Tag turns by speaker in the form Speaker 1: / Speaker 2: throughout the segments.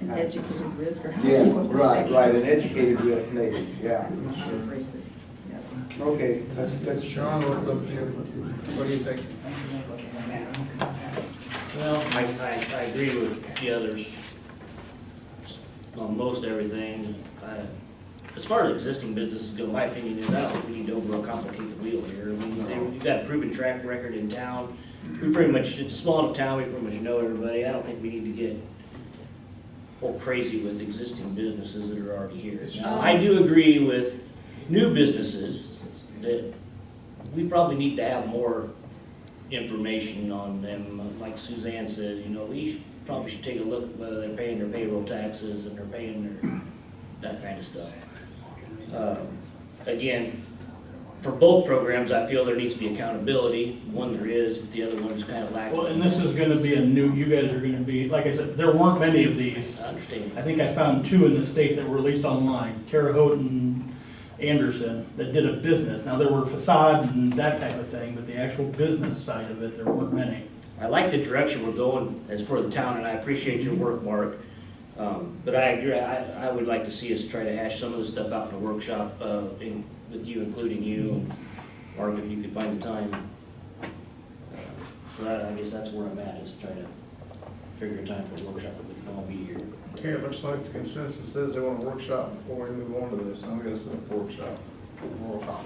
Speaker 1: an educated risk, or how do
Speaker 2: Yeah,
Speaker 1: you want to say?
Speaker 2: right, right, an educated risk maybe, yeah.
Speaker 1: I should phrase it, Yes.
Speaker 2: Okay, that's, that's.
Speaker 3: Sean, what's up here? What do you think?
Speaker 4: Well, I, I, I agree with the others on most everything. I- As far as existing businesses go, my opinion is, I don't think we need to overcomplicate the wheel here. I mean, they- We've got a proven track record in town. We pretty much, it's a small enough town, we pretty much know everybody. I don't think we need to get all crazy with existing businesses that are already here. Now, I do agree with new businesses that we probably need to have more information on them. Uh, Like Suzanne says, you know, we probably should take a look at whether they're paying their payroll taxes and they're paying their, that kind of stuff. Um, Again, for both programs, I feel there needs to be accountability. One there is, but the other one's kind of lacking.
Speaker 5: Well, and this is gonna be a new, you guys are gonna be, like I said, there weren't many of these.
Speaker 4: I understand.
Speaker 5: I think I found two in the state that were released online, Terre Haute and Anderson, that did a business. Now, there were facades and that type of thing, but the actual business side of it, there weren't many.
Speaker 4: I like the direction we're going as for the town, and I appreciate your work, Mark. Um, But I agree, I, I would like to see us try to hash some of this stuff out in the workshop, uh, in- with you, including you, and Mark, if you could find the time. Uh, So that- I guess that's where I'm at, is trying to figure a time for a workshop, if we can all be here.
Speaker 3: Okay, it looks like the consensus is they want a workshop before we move on to this. I'm gonna set up a workshop. Roll call.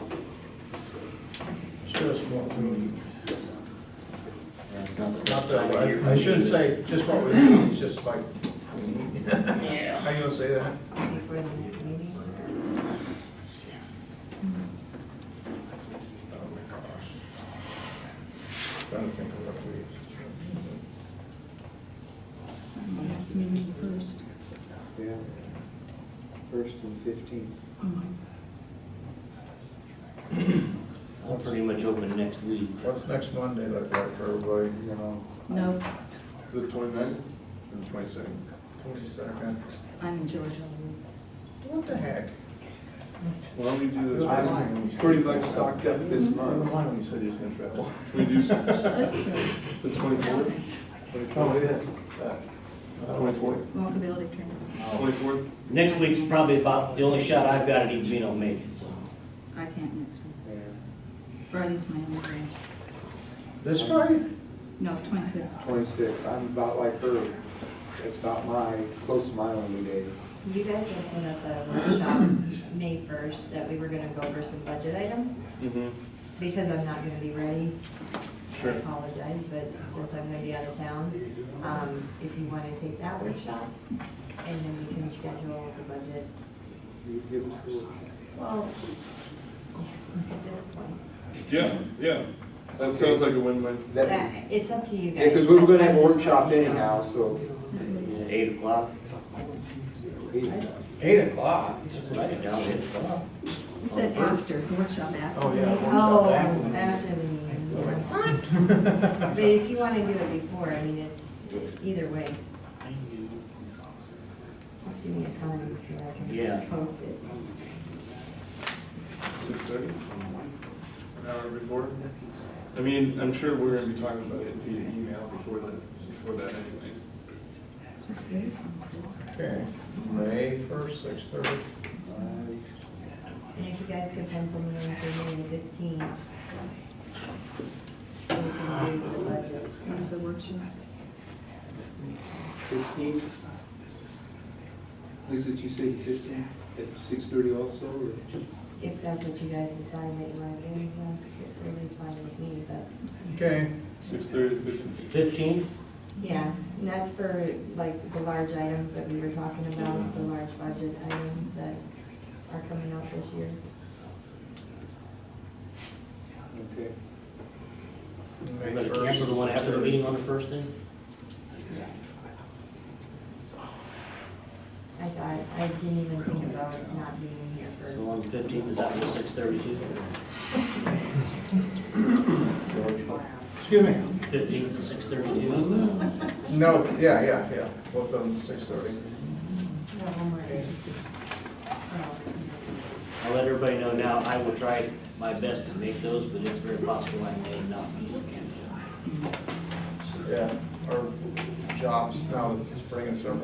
Speaker 3: Just what we,
Speaker 4: And It's not the best
Speaker 3: not that,
Speaker 4: time here.
Speaker 3: I shouldn't say just what we need, it's just like,
Speaker 4: Yeah.
Speaker 3: how you gonna say that?
Speaker 1: I think we're in the next meeting.
Speaker 3: Oh my gosh. Trying to think of what we.
Speaker 1: Perhaps meeting's the first.
Speaker 2: Yeah. First and fifteenth.
Speaker 4: I'm pretty much open next week.
Speaker 3: What's next Monday look like for everybody? You know,
Speaker 1: No,
Speaker 6: The twenty-ninth and the twenty-second.
Speaker 3: twenty-second.
Speaker 1: I'm in Georgia.
Speaker 3: What the heck?
Speaker 6: Why don't we do this?
Speaker 2: I'm pretty much stocked up this month.
Speaker 6: don't you say you're gonna travel? Should we do the
Speaker 1: This is
Speaker 6: twenty-fourth?
Speaker 3: Oh, it is.
Speaker 6: Twenty-fourth?
Speaker 1: a walkability training.
Speaker 6: Twenty-fourth?
Speaker 4: Next week's probably about the only shot I've got at even being able to make it, so.
Speaker 1: I can't next week. Friday's my only day.
Speaker 3: This Friday?
Speaker 1: No, twenty-sixth.
Speaker 2: Twenty-sixth, I'm about like her. That's about my, close to my only day.
Speaker 7: You guys mentioned at the workshop, May first, that we were gonna go over some budget items,
Speaker 6: Mm-hmm.
Speaker 7: because I'm not gonna be ready. I
Speaker 6: Sure.
Speaker 7: apologize, but since I'm gonna be out of town, um, if you wanna take that workshop, and then we can schedule the budget.
Speaker 2: You give it to her.
Speaker 7: Well. At this point,
Speaker 6: Yeah, yeah. That sounds like a win-win.
Speaker 2: That,
Speaker 7: That- it's up to you
Speaker 2: yeah,
Speaker 7: guys.
Speaker 2: because we were gonna have a
Speaker 7: I'm just
Speaker 2: workshop
Speaker 7: letting you know.
Speaker 2: anyhow, so.
Speaker 4: Eight o'clock,
Speaker 3: Eight o'clock.
Speaker 4: that's what I can down eight o'clock.
Speaker 1: You said
Speaker 2: Oh,
Speaker 1: after, the workshop after.
Speaker 3: Oh, yeah.
Speaker 7: Oh, after the meeting. yeah. But if you wanna do it before, I mean, it's, either way. Just give me a time so I
Speaker 4: Yeah.
Speaker 7: can post it.
Speaker 6: Six thirty? An hour before? I mean, I'm sure we're gonna be talking about it via email before the, before that anyway.
Speaker 1: Six days sounds good.
Speaker 3: Okay, May first, six thirty.
Speaker 7: And if you guys could pencil me in for May the fifteenth. So we can do the budget.
Speaker 1: That's the workshop.
Speaker 2: Fifteenth? Lisa, did you say fifteenth at six thirty also? or-
Speaker 7: If that's what you guys decide that you want to do, yeah, six thirty is fine with me, but.
Speaker 3: Okay,
Speaker 6: Six thirty, fifteen.
Speaker 4: Fifteenth?
Speaker 7: Yeah, and that's for like the large items that we were talking about, the large budget items that are coming out this year.
Speaker 2: Okay.
Speaker 3: May
Speaker 4: Everybody
Speaker 3: first.
Speaker 4: Cancel the one after the meeting on the first day?
Speaker 7: I thought, I didn't even think about not being here
Speaker 4: So
Speaker 7: for.
Speaker 4: on the fifteenth, is that the six thirty-two?
Speaker 3: Excuse me?
Speaker 4: Fifteenth is six thirty-two?
Speaker 3: No, yeah, yeah, yeah, both of them six thirty.
Speaker 7: No, one more day. Oh.
Speaker 4: I'll let everybody know now, I will try my best to make those, but it's very possible I may not be able to.
Speaker 3: Yeah, our jobs now, it's spring and summer.